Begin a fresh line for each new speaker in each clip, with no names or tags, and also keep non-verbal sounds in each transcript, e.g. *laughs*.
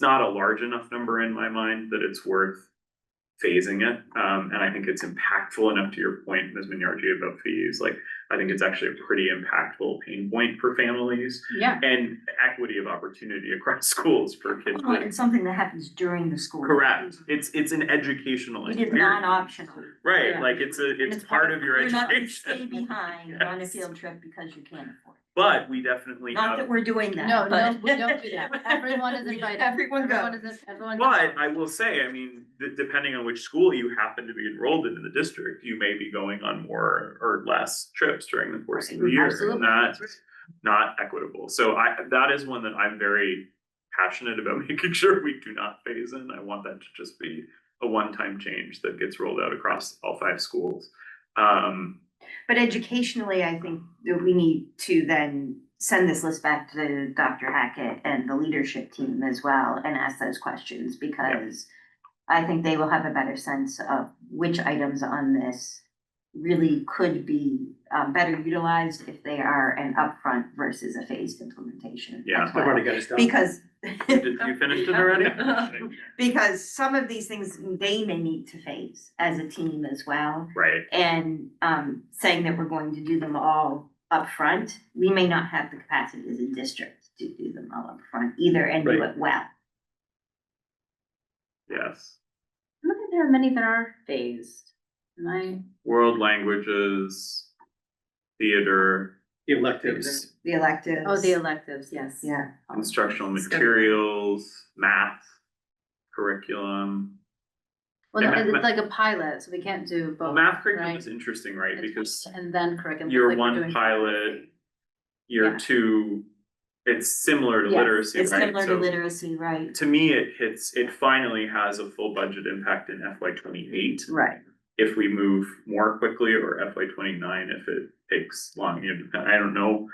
not a large enough number in my mind that it's worth phasing it. Um, and I think it's impactful enough to your point, Ms. Minyarji, about fees. Like, I think it's actually a pretty impactful pain point for families
Yeah.
and equity of opportunity across *laughs* schools for kids.
Well, It's something that happens during the school. year.
Correct. It's, it's an educational
It is
experience.
non-optional. And
Right,
yeah.
like it's a, it's part of your
You're not gonna stay
education. *laughs*
behind on a
Yes.
field trip because you can't afford it.
But we definitely
Not that
have,
we're doing that,
No, no,
but-
we *laughs* don't do that. Everyone
*laughs*
is invited.
Everyone
Everyone
goes.
is, everyone. goes.
but I will say, I mean, d- depending on which school you happen to be enrolled in in the district, you may be going on more or less trips during the course of the year.
Absolutely.
And that's not equitable. So I, that is one that I'm very passionate about *laughs* making sure we do not phase in. I want that to just be a one-time change that gets rolled out across all five schools. Um,
But educationally, I think that we need to then send this list back to Dr. Hackett and the leadership team as well and ask those questions because I think they will have a better sense of which items on this really could be um better utilized if they are an upfront versus a phased implementation. as
Yeah. I've
well.
already got it down.
Because
did you finish it already?
*laughs* because some of these things they may need to phase as a team as well.
Right,
and um saying that we're going to do them all up front, we may not have the capacity as a district to do them all up front either and do
Right.
it well.
yes.
I don't think there are many that are phased. And I,
world languages, theater,
Electives.
The electives.
oh, the electives, yes.
Yeah,
instructional
Stuff.
materials, math, curriculum.
Well,
Yeah,
no,
ma- ma-
it's like a pilot, so we can't do
Well,
both.
math curriculum
right?
is interesting, right? Because
And then curriculum.
year
like we're
one
doing-
pilot,
Yeah.
year two, it's similar to
Yes,
literacy, right?
it's similar to
So
literacy, right?
To me, it hits, it finally has a full budget impact in FY twenty-eight.
Right.
if we move more quickly or FY twenty-nine if it takes long, you know, I don't know.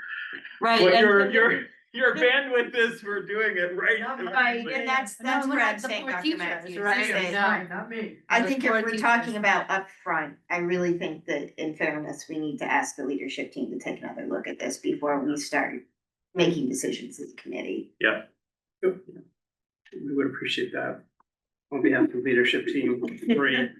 Right.
What
and-
your, your, your bandwidth is for doing it right.
Right,
And that's
No,
that's
we're
what
not
I'm saying,
support
Dr.
teachers,
Matthews, is
right?
that-
No. Fine,
not me.
I think if
Support
we're
teachers.
talking about upfront, I really think that in fairness, we need to ask the leadership team to take another look at this before we start making decisions as a committee.
We would appreciate that. On behalf of the leadership team, great.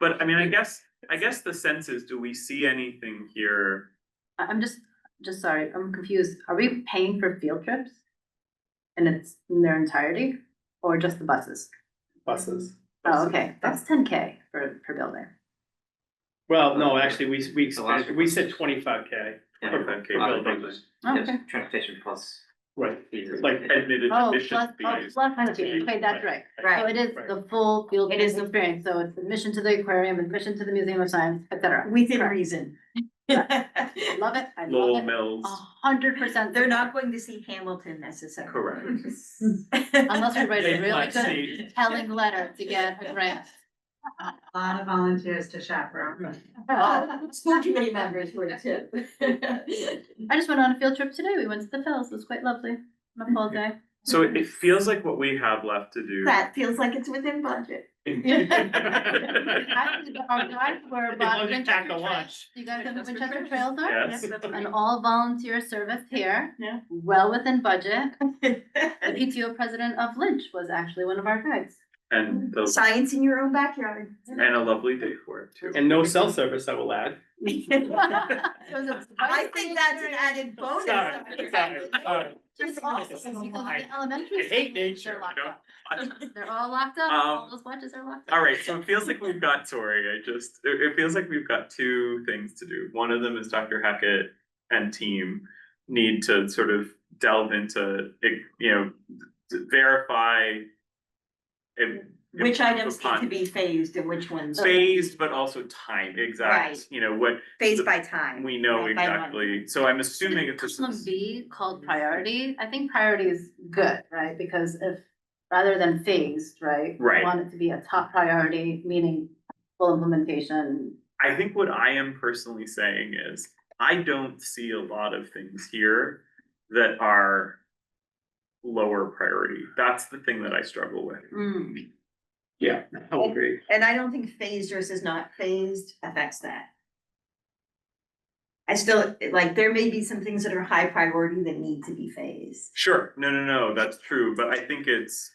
But I mean, I guess, I guess the sense is, do we see anything here?
I- I'm just, just sorry, I'm confused. Are we paying for field trips? And it's in their entirety or just the buses?
buses.
Oh, okay, that's ten K for, per building.
Well, no, actually, we, we,
The last
expanded- we said twenty-five K.
Yeah.
Okay,
A lot
well,
of things.
Oh, Okay.
Yes, transportation plus.
Right.
fees.
Like,
admitted
Oh,
admission
plus, oh,
fees.
plus, fee. okay, that's right. So it is the full field
It
trip
is the-
experience, so it's admission to the aquarium, admission to the Museum of Science, et cetera.
Within
Correct.
reason.
I Love it, I
Lowell
love it,
Mills,
a hundred percent.
*laughs* They're not going to see Hamilton necessarily.
Correct.
*laughs*
*laughs*
Unless we write a
They
really
might
good
see-
telling letter to get a grant.
A lot of volunteers to chaperone.
*laughs*
Uh, School committee members were
*laughs*
too.
I just went on a field trip today, we went to the Phils, it was quite lovely, my whole day.
so it, it feels like what we have left to do.
That feels like it's within budget.
I was- Our guides were
As long
about
as you
Winchester
pack a
Trails,
lunch.
you guys know what Winchester Trails are?
*laughs* Yes,
An all volunteer service here.
*laughs* Yeah.
Well within
*laughs*
budget, the PTO president of Lynch was actually one of our guides.
and the,
Science in your own backyard.
and a lovely day for it
*laughs*
too.
And no cell service, I will add.
*laughs* It was a
I think that's an
spicy
added bonus.
Sorry, sorry, sorry.
It's awesome because the elementary.
I hate
schools,
nature,
They're locked
you know?
up. They're all locked up.
Um,
All those watches are locked up.
All right, so it feels like we've got, sorry, I just, it, it feels like we've got two things to do. One of them is Dr. Hackett and team need to sort of delve into, it, you know, to verify if- if
Which items need
upon
to be phased and which ones
Phased, but also time, exact,
Right.
you know, what
phased by time?
we know
Right, by month.
exactly. So I'm assuming it's
Column
just,
B called priority, I think priority is good, right? Because if, rather than phased, right? we
Right.
Want it to be a top priority, meaning full implementation.
I think what I am personally saying is, I don't see a lot of things here that are lower priority. That's the thing that I struggle with.
Hmm.
Yeah, I will agree.
And I don't think phased versus not phased affects that. I still, like, there may be some things that are high priority that need to be phased.
Sure, no, no, no, that's true, but I think it's,